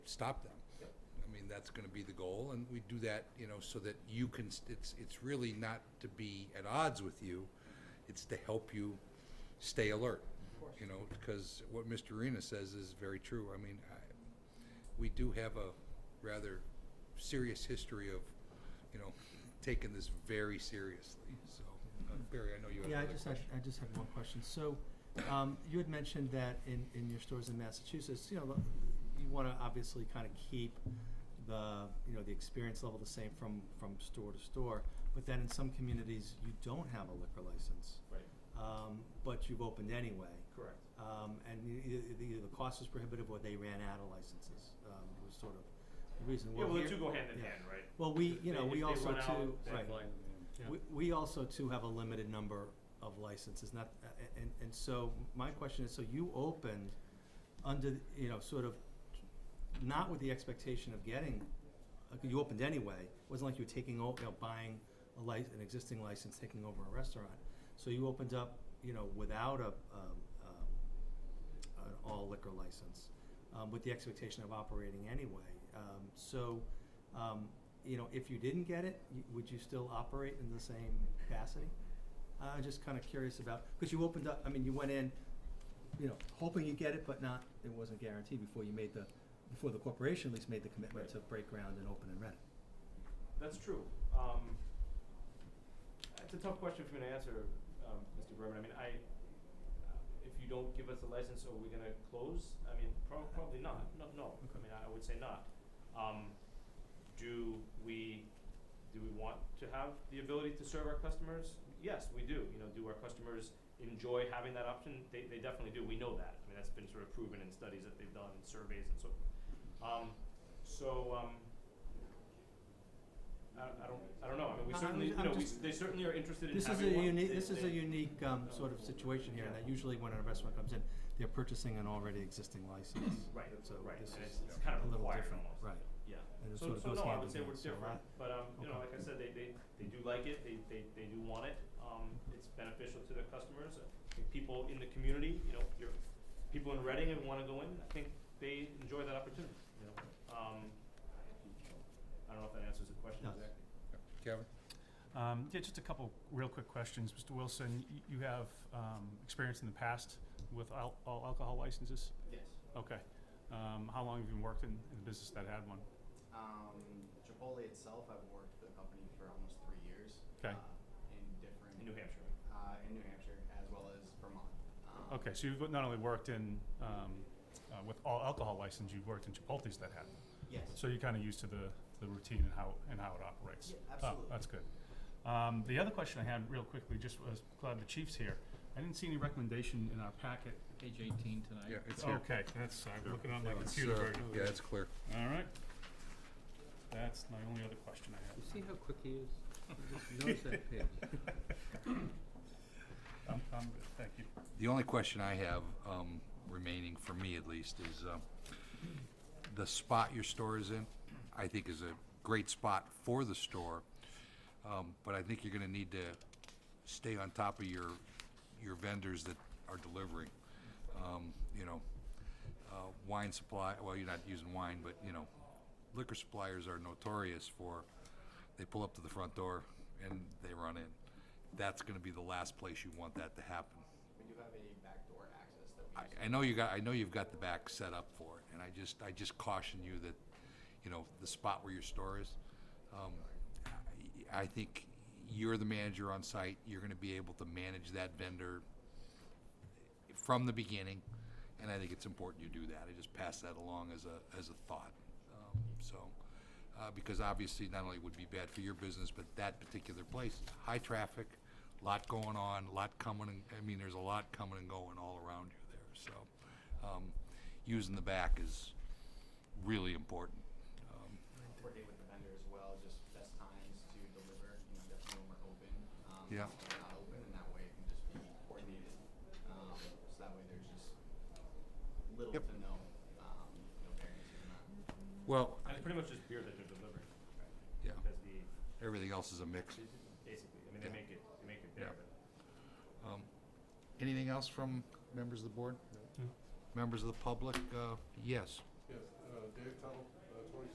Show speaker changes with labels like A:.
A: stop them. I mean, that's gonna be the goal, and we do that, you know, so that you can, s- it's, it's really not to be at odds with you, it's to help you stay alert. You know, because what Mr. Arena says is very true. I mean, I, we do have a rather serious history of, you know, taking this very seriously, so, uh, Barry, I know you have
B: Yeah, I
A: another
B: just had,
A: question.
B: I just had one question. So, um, you had mentioned that in, in your stores in Massachusetts, you know, the- you wanna obviously kinda keep the, you know, the experience level the same from, from store to store, but then in some communities, you don't have a liquor license.
C: Right,
B: Um, but you've opened anyway.
C: correct.
B: Um, and e- e- either the cost was prohibitive or they ran out of licenses, um, was sort of the reason.
C: Yeah,
B: Well,
C: well, the
B: here-
C: two go hand in
B: yeah.
C: hand, right?
B: Well, we,
C: If
B: you know,
C: they-
B: we
C: if they
B: also
C: run out,
B: too,
C: then-
B: right. We, we also too have a limited number of licenses, not, a- a- and, and so my question is, so you opened under, the- you know, sort of not with the expectation of getting, like, you opened anyway, it wasn't like you were taking, o- you know, buying a lic- an existing license, taking over a restaurant. So you opened up, you know, without a, um, um, an all liquor license, um, with the expectation of operating anyway. Um, so, um, you know, if you didn't get it, y- would you still operate in the same capacity? I'm just kind of curious about, because you opened up, I mean, you went in, you know, hoping you get it, but not, it wasn't guaranteed before you made the, before the corporation at least made the commitment to
C: Right.
B: break ground and open and rent.
C: That's true. Um, it's a tough question for me to answer, um, Mr. Berman. I mean, I, if you don't give us a license, are we gonna close? I mean, prob- probably not. No, no. I
B: Okay.
C: mean, I would say not. Um, do we, do we want to have the ability to serve our customers? Yes, we do. You know, do our customers enjoy having that option? They, they definitely do. We know that. I mean, that's been sort of proven in studies that they've done and surveys and so forth. Um, so, um, I, I don't, I don't know. I mean, we
B: I- I'm
C: certainly,
B: ju-
C: you
B: I'm
C: know, we,
B: just-
C: they certainly are interested in
B: This is a
C: having one.
B: unique,
C: They-
B: this is a
C: they-
B: unique, um, sort of situation here, and that
C: Yeah.
B: usually when a restaurant comes in, they're purchasing an already existing license.
C: Right,
B: So
C: right,
B: this
C: and
B: is
C: it's, it's kind
B: a
C: of
B: little
C: required
B: different,
C: almost.
B: right.
C: Yeah.
B: And it
C: So,
B: sort of
C: so
B: goes
C: no, I
B: hand
C: would
B: in
C: say
B: hand,
C: we're
B: so
C: different,
B: I-
C: but, um, you know,
B: okay.
C: like I said, they, they, they do like it, they, they, they do want it, um, it's beneficial to their customers. I think People in the community, you know, your, people in Reading and wanna go in, I think they enjoy that opportunity, you know, um, I don't know if that answers the question
B: No.
C: exactly.
A: Kevin?
D: Um, yeah, just a couple real quick questions. Mr. Wilson, y- you have um, experience in the past with al- all alcohol licenses?
E: Yes.
D: Okay. Um, how long have you worked in, in the business that had one?
E: Um, Chipotle itself, I've worked for the company for almost three years.
D: 'Kay.
E: Uh, in different.
C: In New Hampshire.
E: Uh, in New Hampshire as well as Vermont. Um,
D: Okay, so you've not only worked in um, uh, with all alcohol license, you've worked in Chipotle's that had one.
E: Yes.
D: So you're kind of used to the, the routine and how and how it operates.
E: Yeah,
D: Oh,
E: absolutely.
D: that's good. Um, the other question I had real quickly, just was glad the chief's here. I didn't see any recommendation in our packet.
F: Page eighteen tonight.
A: Yeah, it's here.
D: Oh, Okay, that's I'm
A: Sure.
D: looking on my
A: Yeah, it's,
D: computer
A: uh,
D: version.
A: Yeah, it's clear.
D: All right. That's my only other question I
F: You
D: have.
F: see how quick he is? You just notice that page.
D: I'm, I'm good, thank you.
A: The only question I have um, remaining, for me at least, is um, the spot your store is in, I think is a great spot for the store, um, but I think you're gonna need to stay on top of your, your vendors that are delivering. Um, You know, uh, wine supply, well, you're not using wine, but, you know, liquor suppliers are notorious for, they pull up to the front door and they run in. That's gonna be the last place you want that to happen.
E: We do have a backdoor access that we. use.
A: I, I know you got, I know you've got the back set up for it, and I just, I just caution you that, you know, the spot where your store is, um, I, I think you're the manager on site, you're gonna be able to manage that vendor from the beginning, and I think it's important you do that, I just pass that along as a, as a thought, um, so. Uh, because obviously, not only would be bad for your business, but that particular place, high traffic, lot going on, lot coming and, I mean, there's a lot coming and going all around you there, so. Um, using the back is really important, um,
E: Working with the vendor as well, just best times to deliver, you know, definitely when we're open. Um,
A: Yeah.
E: when we're Not open, and that way it can just be coordinated. Um, so that way there's just little
A: Yep.
E: to no, um, you know, variances in that.
A: well,
C: And it's pretty much just beer that they're delivering,
A: yeah,
C: because the,
A: everything else is a mix.
C: basically, I mean, they
A: Yeah.
C: make it, they make it
A: Yeah.
C: there,
A: Um,
C: but.
A: Anything else from members of the board?
D: No.
A: Members of the public, uh, yes,
G: Yes, uh, Dave Tuttle,